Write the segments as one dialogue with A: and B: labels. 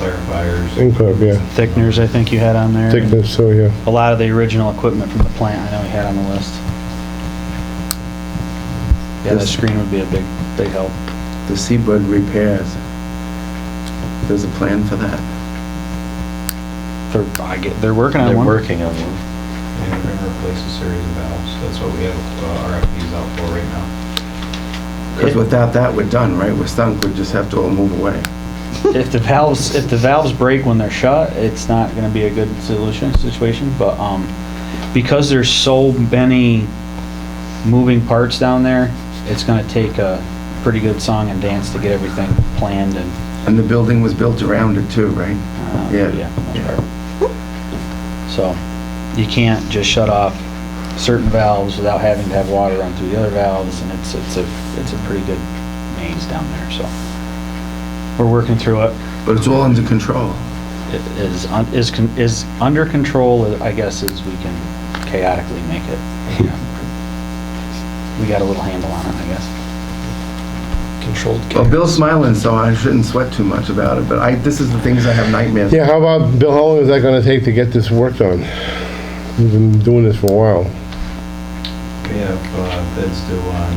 A: clarifiers.
B: Think of, yeah,
C: Thickeners, I think you had on there.
B: thickness, so, yeah.
C: A lot of the original equipment from the plant, I know you had on the list. Yeah, that screen would be a big, big help.
D: The Seabird repairs, there's a plan for that.
C: They're, I get, they're working on
E: They're
C: one.
E: working on one.
A: And we're gonna replace a series of valves. That's what we have uh, RFPs out for right now.
D: Because without that, we're done, right? We're stunk, we just have to all move away.
C: If the valves, if the valves break when they're shut, it's not gonna be a good solution, situation, but, um, because there's so many moving parts down there, it's gonna take a pretty good song and dance to get everything planned and,
D: And the building was built around it too, right?
C: uh,
D: Yeah.
C: yeah. for the most part. So, you can't just shut off certain valves without having to have water run through the other valves, and it's, it's a, it's a pretty good maze down there, so. We're working through it.
D: But it's all under control.
C: is, un- is, con- is under control, I guess, as we can chaotically make it. you know. We got a little handle on it, I guess.
E: Controlled
D: Well, Bill's smiling, so I shouldn't sweat too much about it, but I, this is the things I have nightmares.
B: Yeah, how about, Bill, how long is that gonna take to get this work done? We've been doing this for a while.
A: We have uh, bids due on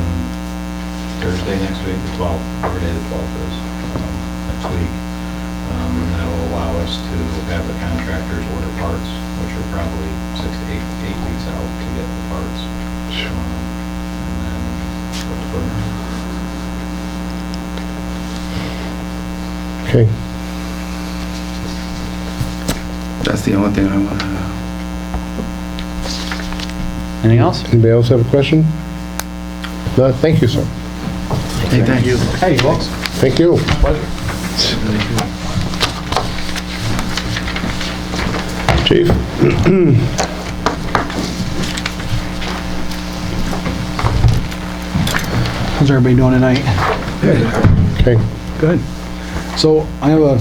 A: Thursday next week, the 12th, whatever day the 12th is, um, next week. Um, And that'll allow us to have the contractors order parts, which are probably six to eight, eight weeks out to get the parts. Um, And then go for it.
B: Okay,
D: That's the only thing I want to know.
C: Anything else?
B: anybody else have a question? No, thank you, sir.
D: Hey, thanks.
C: Hey, folks.
B: Thank you. Chief?
F: How's everybody doing tonight?
B: Okay.
F: Good. So I have a.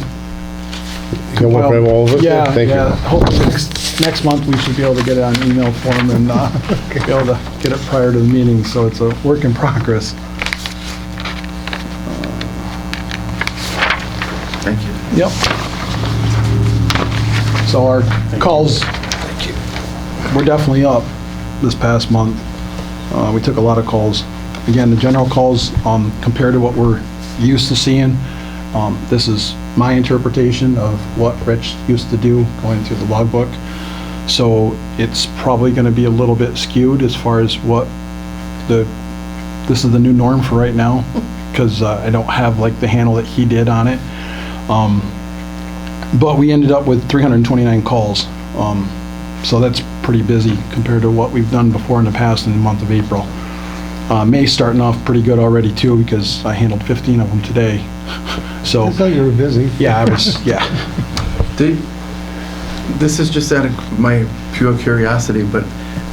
B: You got one for all of us?
F: Yeah,
B: Thank you.
F: yeah. Hopefully next, next month we should be able to get it on email form and uh, be able to get it prior to the meeting, so it's a work in progress.
D: Thank you.
F: Yep. So our calls, we're definitely up this past month. Uh, We took a lot of calls. Again, the general calls, um, compared to what we're used to seeing, um, this is my interpretation of what Rich used to do going through the logbook. So it's probably going to be a little bit skewed as far as what the, this is the new norm for right now, because I don't have like the handle that he did on it. Um, But we ended up with 329 calls. Um, So that's pretty busy compared to what we've done before in the past in the month of April. Uh, May's starting off pretty good already too because I handled 15 of them today. So,
B: thought you were busy.
F: yeah, I was, yeah.
D: Do- This is just out of my pure curiosity, but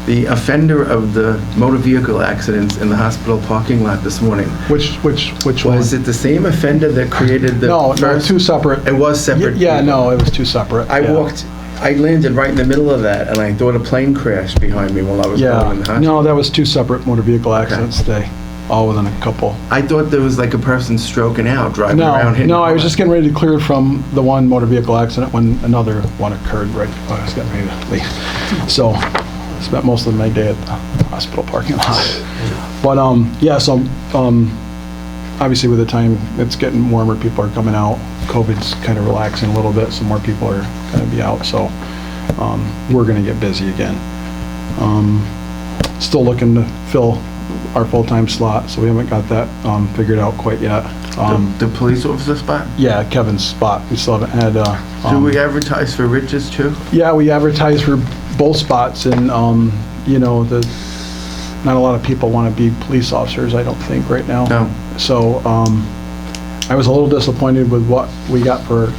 D: the offender of the motor vehicle accidents in the hospital parking lot this morning,
F: Which, which, which one?
D: was it the same offender that created the
F: No, no,
D: first?
F: two separate.
D: It was separate.
F: Yeah,
D: people.
F: no, it was two separate.
D: I
F: yeah.
D: walked, I landed right in the middle of that, and I thought a plane crashed behind me while I was going in the
F: Yeah,
D: hospital.
F: no, that was two separate motor vehicle accidents today, all within a couple.
D: I thought there was like a person stroking out, driving
F: No,
D: around. hitting
F: no, I was
D: cars.
F: just getting ready to clear from the one motor vehicle accident when another one occurred right, when I was getting ready to leave. So, spent most of my day at the hospital parking lot. But, um, yeah, so, um, obviously with the time, it's getting warmer, people are coming out, COVID's kind of relaxing a little bit, so more people are gonna be out, so, um, we're gonna get busy again. Um, Still looking to fill our full-time slot, so we haven't got that, um, figured out quite yet. Um,
D: The the police officer spot?
F: yeah, Kevin's spot. We still haven't had, uh,
D: Do
F: um,
D: we advertise for riches too?
F: yeah, we advertise for both spots and, um, you know, the, not a lot of people want to be police officers, I don't think, right now.
D: No.
F: So, um, I was a little disappointed with what we got for,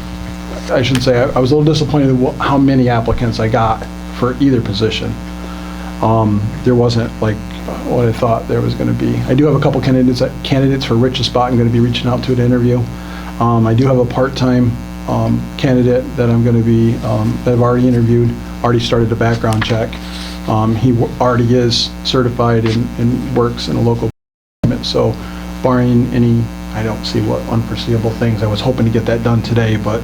F: I shouldn't say, I I was a little disappointed with wha- how many applicants I got for either position. Um, there wasn't like what I thought there was gonna be. I do have a couple candidates, uh, candidates for Rich's spot I'm gonna be reaching out to at interview. Um, I do have a part-time, um, candidate that I'm gonna be, um, that I've already interviewed, already started a background check. Um, he wa- already is certified and, and works in a local government, so barring any, I don't see what unforeseeable things, I was hoping to get that done today, but